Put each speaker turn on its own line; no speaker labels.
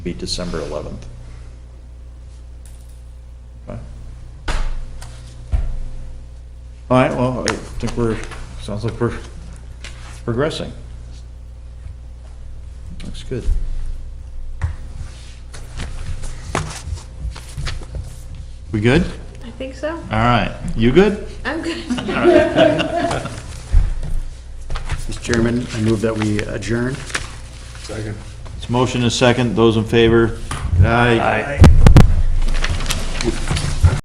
be December 11th. Okay. All right, well, I think we're, sounds like we're progressing. Looks good. We good?
I think so.
All right, you good?
I'm good.
Mr. Chairman, I move that we adjourn.
It's motion is second, those in favor? Aye.